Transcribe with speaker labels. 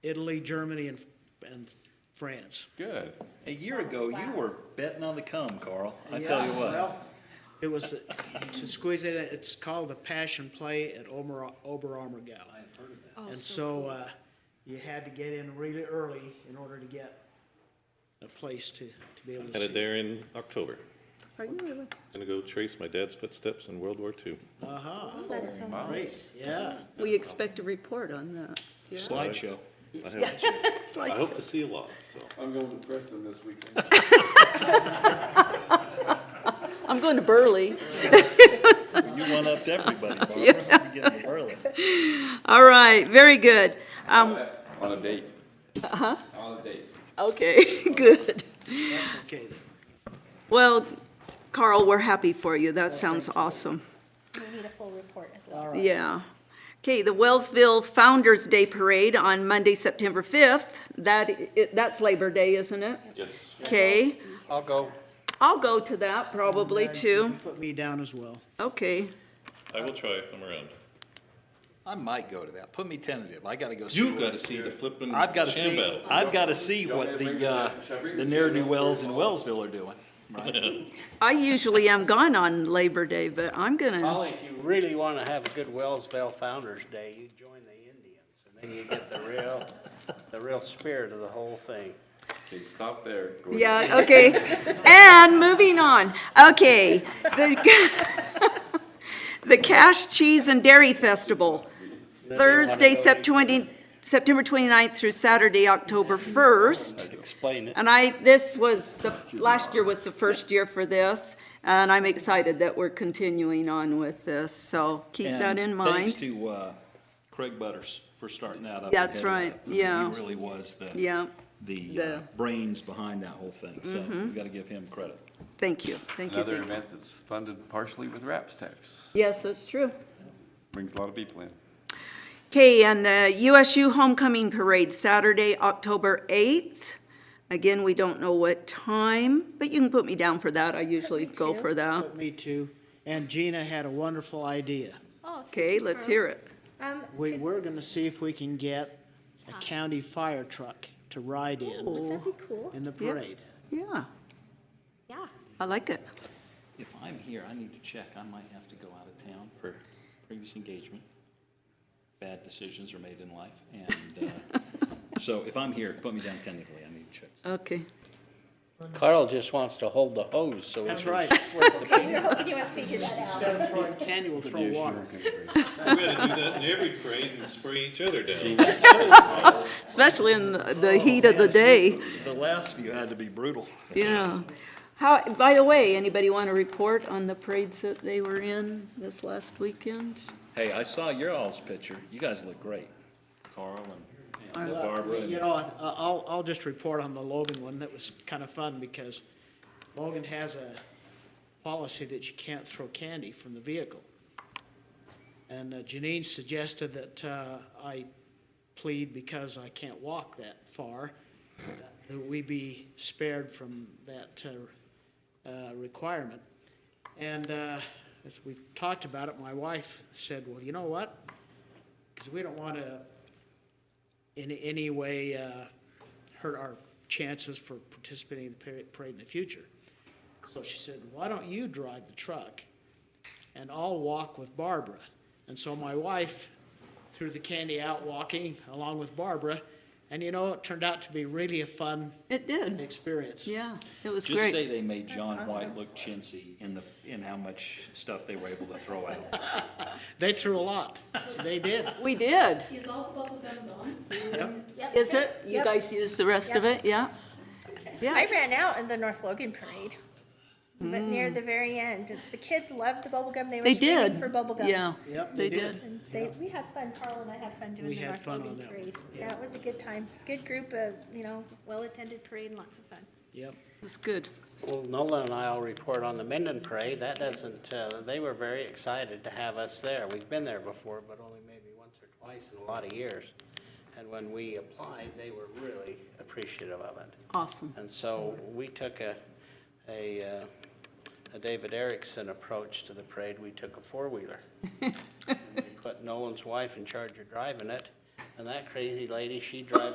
Speaker 1: Italy, Germany, and, and France.
Speaker 2: Good. A year ago, you were betting on the come, Carl. I
Speaker 1: Yeah,
Speaker 2: tell you what.
Speaker 1: well, It was, to squeeze it, in, it's called the Passion Play at Ober, Oberammergau. I've heard of
Speaker 3: Oh,
Speaker 1: that. And so, uh, you had to get in really early in order to get a place to, to be able to
Speaker 4: Had
Speaker 1: see.
Speaker 4: it there in October.
Speaker 3: Are you really?
Speaker 4: Gonna go trace my dad's footsteps in World War II.
Speaker 1: Uh-huh,
Speaker 3: Oh, That's so
Speaker 2: Wow.
Speaker 1: great, yeah.
Speaker 3: We expect a report on that. Yeah.
Speaker 2: Slideshow.
Speaker 4: I have-
Speaker 3: It's
Speaker 4: I
Speaker 3: like-
Speaker 4: hope to see a lot, so.
Speaker 5: I'm going to Preston this weekend.
Speaker 3: I'm going to Burley.
Speaker 2: You one upped everybody, Barbara. You're getting early.
Speaker 3: All right, very good.
Speaker 5: On a date. Uh-huh. On a date.
Speaker 3: Okay, good.
Speaker 1: That's okay then.
Speaker 3: Well, Carl, we're happy for you. That sounds awesome.
Speaker 6: We need a full report as well.
Speaker 3: Yeah. Okay, the Wellsville Founder's Day Parade on Monday, September 5th. That, i- that's Labor Day, isn't it?
Speaker 4: Yes.
Speaker 3: Okay,
Speaker 7: I'll go.
Speaker 3: I'll go to that probably
Speaker 1: And
Speaker 3: too.
Speaker 1: you Put me down as well.
Speaker 3: Okay.
Speaker 4: I will try if I'm around.
Speaker 7: I might go to that. Put me tentative. I gotta go. see
Speaker 4: You've
Speaker 7: what-
Speaker 4: gotta see the flippin'
Speaker 7: I've gotta
Speaker 4: sham
Speaker 7: see,
Speaker 4: battle.
Speaker 7: I've gotta see
Speaker 5: Y'all
Speaker 7: what
Speaker 5: may bring
Speaker 7: the,
Speaker 5: the-
Speaker 7: uh,
Speaker 5: should I bring
Speaker 7: the
Speaker 5: the
Speaker 7: ne'er-do
Speaker 5: sham
Speaker 7: wells in
Speaker 5: back for
Speaker 7: Wellsville are doing.
Speaker 3: I usually am gone on Labor Day, but I'm gonna,
Speaker 8: Well, if you really want to have a good Wellsville Founder's Day, you join the Indians, and then you get the real, the real spirit of the whole thing.
Speaker 5: Okay, stop there. Go ahead.
Speaker 3: yeah, okay. And moving on, okay. the- The Cash Cheese and Dairy Festival, Thursday, Sep- 20 September 29th through Saturday, October 1st.
Speaker 8: Explain it.
Speaker 3: And I, this was, the, last year was the first year for this, and I'm excited that we're continuing on with this, so keep that
Speaker 2: And
Speaker 3: in
Speaker 2: Thanks
Speaker 3: mind.
Speaker 2: to uh, Craig Butters for starting that up.
Speaker 3: That's
Speaker 2: and heading
Speaker 3: right,
Speaker 2: that.
Speaker 3: yeah.
Speaker 2: He really was the,
Speaker 3: Yeah,
Speaker 2: the uh,
Speaker 3: the- Mm-hmm.
Speaker 2: brains behind that whole thing, so we gotta give him credit.
Speaker 3: thank you, thank you,
Speaker 5: Another
Speaker 3: thank you.
Speaker 5: event that's funded partially with RAPS tax.
Speaker 3: Yes, that's true.
Speaker 5: Brings a lot of people in.
Speaker 3: Okay, and the USU Homecoming Parade, Saturday, October 8th. Again, we don't know what time, but you can put me down for that, I usually go for that.
Speaker 1: Put me too. And Gina had a wonderful idea.
Speaker 6: Oh, thank
Speaker 3: Okay,
Speaker 6: you,
Speaker 3: let's
Speaker 6: Carl.
Speaker 3: hear it.
Speaker 6: Um,
Speaker 1: We, we're gonna see if we can get a county fire truck to ride in,
Speaker 6: that'd be cool.
Speaker 1: in the parade.
Speaker 3: Yeah,
Speaker 6: Yeah.
Speaker 3: I like it.
Speaker 2: If I'm here, I need to check. I might have to go out of town for previous engagement. Bad decisions are made in life, and uh, so if I'm here, put me down technically. I need to check.
Speaker 3: Okay.
Speaker 8: Carl just wants to hold the hose, so it's
Speaker 1: That's right.
Speaker 6: You're hoping Oh, you might figure that out.
Speaker 1: Instead of throwing candy, we'll throw water.
Speaker 4: We gotta do that in every parade and spray each other down.
Speaker 3: Especially in the- the heat of the day.
Speaker 2: The last few had to be brutal.
Speaker 3: Yeah. How, by the way, anybody want to report on the parades that they were in this last weekend?
Speaker 2: Hey, I saw your all's picture. You guys look great, Carl and Barbara.
Speaker 1: You know, I- I'll, I'll just report on the Logan one. That was kind of fun because Logan has a policy that you can't throw candy from the vehicle. And uh, Janine suggested that uh, I plead because I can't walk that far, that we be spared from that uh, uh, requirement. And uh, as we talked about it, my wife said, well, you know what? Because we don't want to in any way uh, hurt our chances for participating in the par- parade in the future. So she said, why don't you drive the truck and I'll walk with Barbara? And so my wife threw the candy out walking along with Barbara. And you know, it turned out to be really a fun
Speaker 3: It did.
Speaker 1: experience.
Speaker 3: Yeah, it was
Speaker 2: Just say
Speaker 3: great.
Speaker 2: they made John White look chintzy in the, in how much stuff they were able to throw out.
Speaker 1: They threw a lot. They did.
Speaker 3: We did.
Speaker 6: Yep.
Speaker 3: Is it? You
Speaker 6: Yep.
Speaker 3: guys used the rest of it? Yeah?
Speaker 6: I
Speaker 3: Yeah.
Speaker 6: ran out in the North Logan Parade, but near the very end, the kids loved the bubble gum. They were
Speaker 3: Hmm. They
Speaker 6: screaming
Speaker 3: did.
Speaker 6: for bubble gum.
Speaker 3: Yeah.
Speaker 1: Yep,
Speaker 3: They
Speaker 1: they
Speaker 3: did.
Speaker 1: did.
Speaker 6: And they, we had fun, Carl and I had fun
Speaker 1: We
Speaker 6: doing the
Speaker 1: had
Speaker 6: North
Speaker 1: fun on
Speaker 6: Logan
Speaker 1: that one.
Speaker 6: Parade. Yeah, it was a good time. Good group of, you know, well-attended parade and lots of fun.
Speaker 1: Yep.
Speaker 3: It was good.
Speaker 8: Well, Nolan and I'll report on the Minden Parade. That doesn't, uh, they were very excited to have us there. We've been there before, but only maybe once or twice in a lot of years. And when we applied, they were really appreciative of it.
Speaker 3: Awesome.
Speaker 8: And so we took a, a, uh, a David Erickson approach to the parade. We took a four-wheeler. And we Put Nolan's wife in charge of driving it, and that crazy lady, she drives